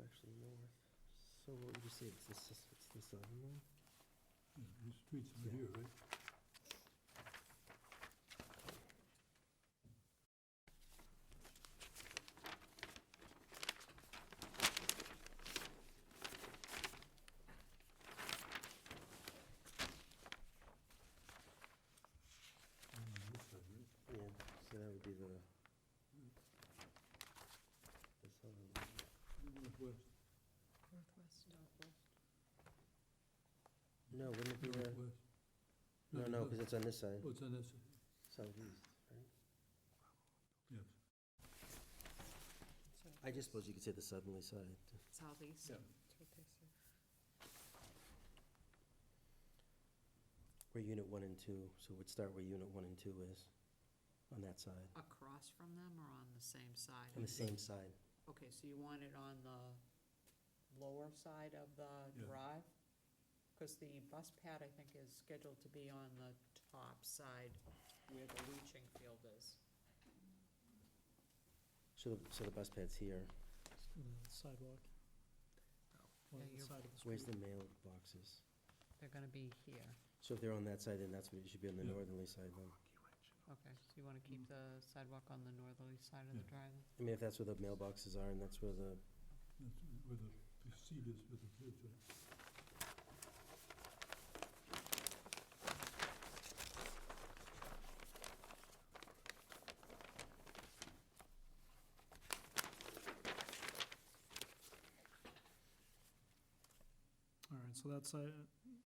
actually north. So what would you say, it's the, s- it's the southern one? Yeah, The streets are here, right? And on this side, right? Yeah, so that would be the, the southern one. Northwest, Northwest. No, wouldn't it be the, northwest. no, no, because it's on this side, Oh, it's on that side, southeast, right? yes. I just suppose you could say the southerly side. Southeast. Yeah. We're unit one and two, so we'd start where unit one and two is, on that side, Across from them or on the same side? on the same side. Okay, so you want it on the lower side of the Yeah. drive? Because the bus pad, I think, is scheduled to be on the top side where the leaching field is. So, the- so the bus pad's here. the sidewalk. One on Yeah, the you're- side of the Where's street. the mailboxes? They're gonna be here. So if they're on that side, then that's what it should be on the Yeah. northerly side then. Okay, so you wanna keep Mm. Mm-hmm. the sidewalk on the northerly side of Yeah. the drive? I mean, if that's where the mailboxes are and that's where the, That's where the, the seat is for the kids, right? All right, so that's, uh,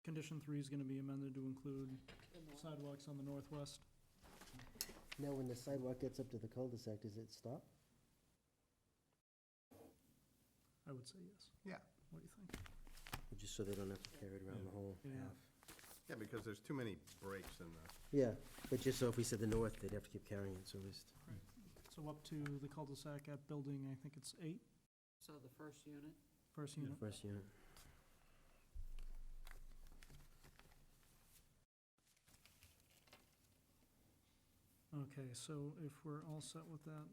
condition three is gonna be amended to include sidewalks on the northwest. now when the sidewalk gets up to the cul-de-sac, does it stop? I would say yes. Yeah. What do you think? Just so they don't have to carry it around the Yeah. whole Yeah. half. Yeah, because there's too many breaks in the, Yeah, but just so if we said the north, they'd have to keep carrying it, so at least. So up to the cul-de-sac at building, I think it's eight, So the first unit? first unit. First unit. Okay, so if we're all set with that,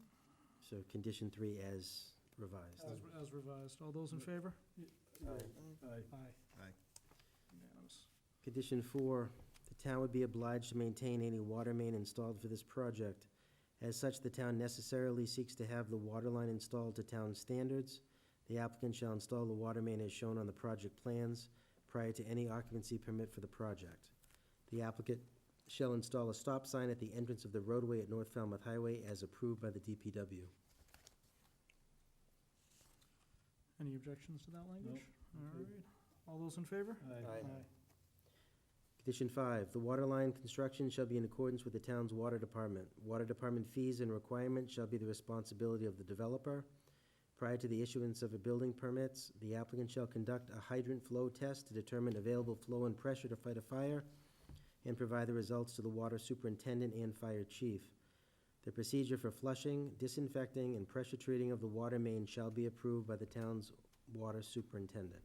So condition three as revised. as as revised, all those in favor? Aye. Aye. Aye. Unanimous. Condition four, the town would be obliged to maintain any water main installed for this project. As such, the town necessarily seeks to have the water line installed to town standards. The applicant shall install the water main as shown on the project plans prior to any occupancy permit for the project. The applicant shall install a stop sign at the entrance of the roadway at North Falmouth Highway as approved by the DPW. Any objections to that language? okay. All right, all those in favor? Aye. Condition five, the water line construction shall be in accordance with the town's water department. Water department fees and requirements shall be the responsibility of the developer. Prior to the issuance of a building permits, the applicant shall conduct a hydrant flow test to determine available flow and pressure to fight a fire and provide the results to the water superintendent and fire chief. The procedure for flushing, disinfecting, and pressure treating of the water main shall be approved by the town's water superintendent.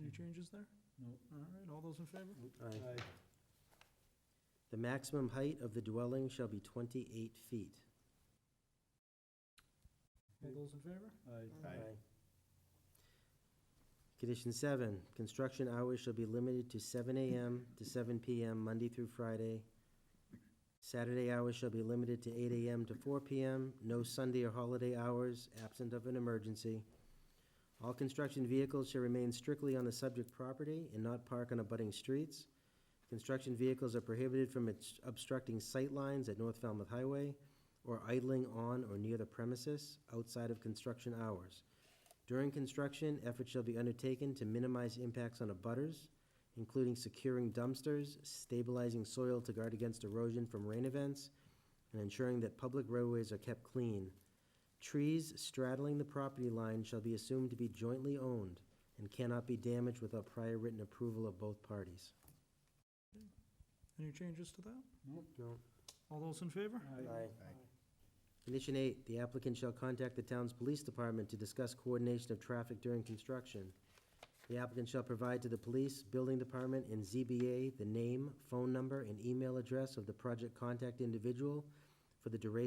Any changes there? No. All right, all those in favor? Aye. The maximum height of the dwelling shall be twenty-eight feet. All those in favor? Aye. Aye. Condition seven, construction hours shall be limited to seven AM to seven PM, Monday through Friday. Saturday hours shall be limited to eight AM to four PM, no Sunday or holiday hours, absent of an emergency. All construction vehicles shall remain strictly on the subject property and not park on abutting streets. Construction vehicles are prohibited from obst- obstructing sight lines at North Falmouth Highway or idling on or near the premises outside of construction hours. During construction, efforts shall be undertaken to minimize impacts on abutters, including securing dumpsters, stabilizing soil to guard against erosion from rain events, and ensuring that public roadways are kept clean. Trees straddling the property line shall be assumed to be jointly owned and cannot be damaged without prior written approval of both parties. Any changes to that? Nope. All those in favor? Aye. Aye. Condition eight, the applicant shall contact the town's police department to discuss coordination of traffic during construction. The applicant shall provide to the police, building department, and ZBA the name, phone number, and email address of the project contact individual for the duration